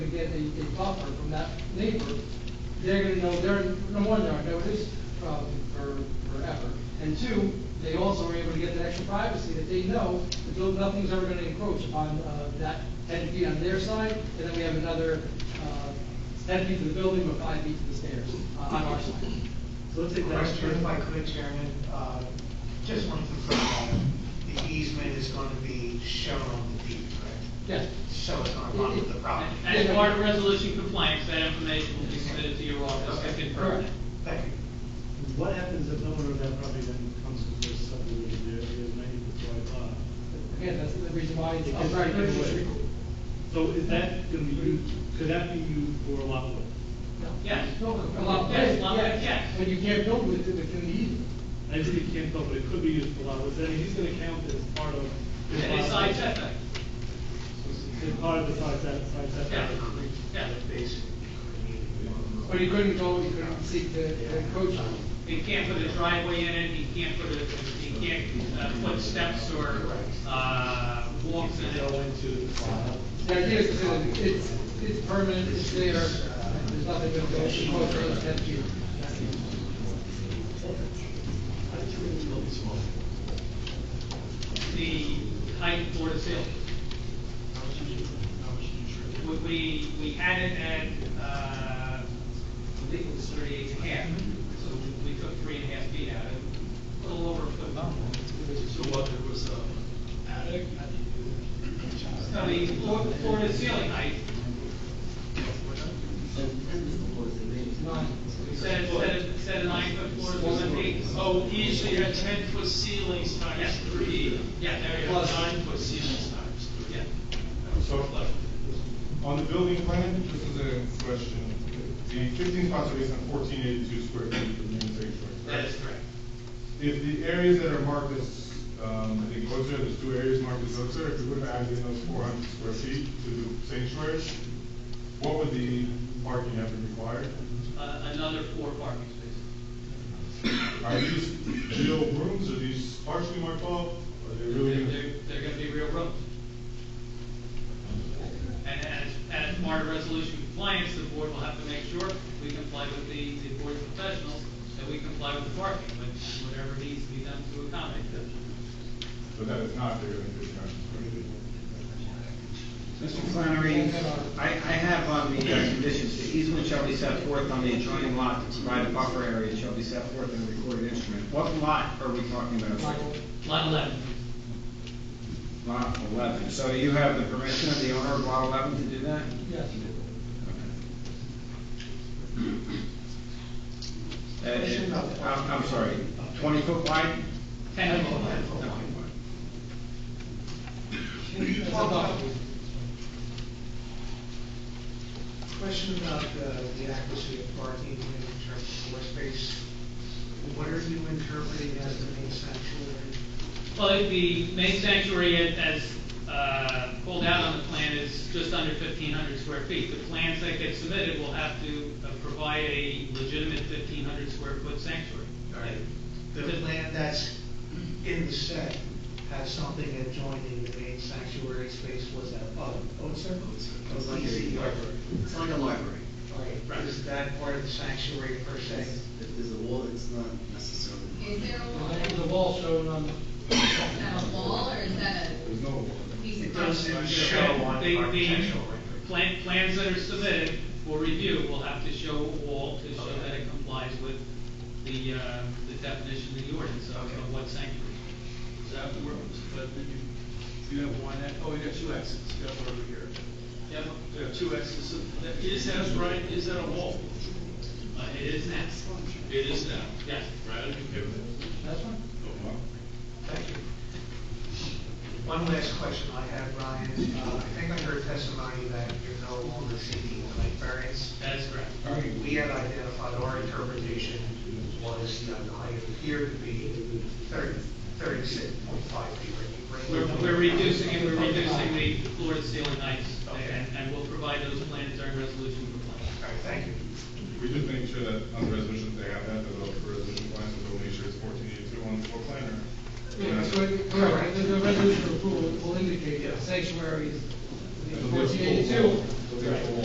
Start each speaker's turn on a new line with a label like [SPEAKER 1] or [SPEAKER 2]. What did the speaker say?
[SPEAKER 1] get a, a buffer from that neighbor, they're gonna know, they're, number one, they're on notice, probably for, forever. And two, they also are able to get that extra privacy that they know that no- nothing's ever gonna encroach on, uh, that ten feet on their side, and then we have another, uh, ten feet to the building, but five feet to the stairs, uh, on our side.
[SPEAKER 2] So let's take that.
[SPEAKER 3] Question, if I could, Chairman, uh, just wanted to clarify, the easement is going to be shown on the deed, correct?
[SPEAKER 1] Yes.
[SPEAKER 3] So it's not run with the property.
[SPEAKER 1] And-
[SPEAKER 4] As part of resolution compliance, that information will be submitted to your office to confirm that.
[SPEAKER 3] Thank you.
[SPEAKER 2] What happens if no one on that property then comes to this subdivision, there is ninety foot wide lot?
[SPEAKER 1] Again, that's the reason why it's.
[SPEAKER 2] It gets
[SPEAKER 1] Right.
[SPEAKER 2] taken away. So is that gonna be used, could that be used for a lot width?
[SPEAKER 4] Yes.
[SPEAKER 1] No, a lot of
[SPEAKER 4] Yes,
[SPEAKER 1] it,
[SPEAKER 4] a lot of it,
[SPEAKER 1] yes.
[SPEAKER 4] yes.
[SPEAKER 1] But you can't build with it within the easement.
[SPEAKER 2] I just think it can't, tell, but it could be used for a lot width, and he's gonna count as part of. his
[SPEAKER 4] Any
[SPEAKER 2] lot
[SPEAKER 4] side
[SPEAKER 2] width.
[SPEAKER 4] setback.
[SPEAKER 2] It's part of the side set, side setback.
[SPEAKER 4] Yeah.
[SPEAKER 1] Or you couldn't go, you couldn't seek to to encroach on it.
[SPEAKER 4] You can't put a driveway in it, you can't put a, you can't uh, put steps or, uh, walks in it.
[SPEAKER 1] The idea is to, it's, it's permanent, it's there, and there's nothing going to go, she won't go to that view.
[SPEAKER 4] The height for the sale. We, we, we had it at, uh, I think it was thirty-eight and a half, so we took three and a half feet out of it, a little over a foot.
[SPEAKER 5] So what, there was a attic? How do you do that?
[SPEAKER 4] No, the floor, floor to ceiling height,
[SPEAKER 1] Nine.
[SPEAKER 4] we said, said, said a nine foot floor to seven feet.
[SPEAKER 5] Oh, usually you had ten foot ceilings times
[SPEAKER 4] Yeah.
[SPEAKER 5] three.
[SPEAKER 4] Yeah, there you
[SPEAKER 5] Now you
[SPEAKER 4] go.
[SPEAKER 5] have nine foot ceilings times three.
[SPEAKER 4] Yeah.
[SPEAKER 6] So, on the building plan, this is a question, the fifteen spots are based on fourteen eighty-two square feet for units eight
[SPEAKER 4] That is correct.
[SPEAKER 6] If the areas that are marked as, um, I think Ozer, there's two areas marked as Ozer, if we would have added in those four hundred square feet to the sanctuary, what would the parking have been required?
[SPEAKER 4] Uh, another four parking spaces.
[SPEAKER 6] Are these real rooms, are these partially marked off, are they really? gonna-
[SPEAKER 4] They're, they're gonna be real rooms. And as, as part of resolution compliance, the board will have to make sure we comply with the, the board of professionals, that we comply with the parking, but whatever needs to be done to accommodate them.
[SPEAKER 6] But that is not, they're gonna be discounted.
[SPEAKER 7] Mr. Flannery, I, I have on the uh, conditions, the easement shall be set forth on the adjoining lot to provide a buffer area shall be set forth in the recorded instrument. What lot are we talking about?
[SPEAKER 4] Lot eleven,
[SPEAKER 7] Lot eleven. So you have the permission of the owner of lot eleven to do that?
[SPEAKER 1] Yes.
[SPEAKER 7] Uh, it- I'm, I'm sorry, twenty foot wide?
[SPEAKER 4] ten of them.
[SPEAKER 7] No,
[SPEAKER 3] Can you
[SPEAKER 1] That's
[SPEAKER 3] talk
[SPEAKER 1] about
[SPEAKER 3] about,
[SPEAKER 1] it.
[SPEAKER 3] question about uh, the accuracy of parking in terms of floor space? What are you interpreting as the main sanctuary?
[SPEAKER 4] Well, the main sanctuary a- as, uh, called out on the plan is just under fifteen hundred square feet. The plans that get submitted will have to uh, provide a legitimate fifteen hundred square foot sanctuary.
[SPEAKER 3] The land that's in the set has something adjoining the main sanctuary space, was that, oh, oh, sir?
[SPEAKER 8] It's like a library. It's like a library.
[SPEAKER 3] Right, is that part of the sanctuary per se?
[SPEAKER 8] If there's a wall, it's not necessarily.
[SPEAKER 9] Is there a wall,
[SPEAKER 1] There's a wall shown on,
[SPEAKER 9] is that a wall or is that
[SPEAKER 6] There's no wall.
[SPEAKER 9] a piece
[SPEAKER 3] It
[SPEAKER 9] of?
[SPEAKER 3] doesn't show on
[SPEAKER 4] The- the
[SPEAKER 3] architectural record.
[SPEAKER 4] Plan, plans that are submitted for review will have to show a wall to show that it complies with the, uh, the definition of the ordinance of of what sanctuary.
[SPEAKER 5] Is that where, but then you, you have one, e- oh, you got two exits, you got one over here.
[SPEAKER 4] Yep.
[SPEAKER 5] You have two exits, So that is that right, is that a wall?
[SPEAKER 4] Uh, it is now,
[SPEAKER 5] It is now.
[SPEAKER 4] yes.
[SPEAKER 5] Right, okay.
[SPEAKER 1] that's one?
[SPEAKER 5] Oh, wow.
[SPEAKER 3] Thank you. One last question I have, Ryan, uh, I think I heard testimony that you're no longer seeking a height variance.
[SPEAKER 4] That is correct.
[SPEAKER 3] We had identified our interpretation was that the height appeared to be thirty, thirty-six point five feet. Are you
[SPEAKER 4] We're,
[SPEAKER 3] bringing-
[SPEAKER 4] we're reducing it, we're reducing the floor to ceiling heights, and, and we'll provide those plans during resolution compliance.
[SPEAKER 3] All right, thank you.
[SPEAKER 6] We just make sure that on the resolution, they have that, developed for resolution plan, so they'll make sure it's fourteen eighty-two on the floor planner.
[SPEAKER 1] Yeah, so it- Correct, the the resolution approval will indicate that sanctuary is
[SPEAKER 6] It'll be a full-
[SPEAKER 1] fourteen eighty-two.
[SPEAKER 6] it'll be a full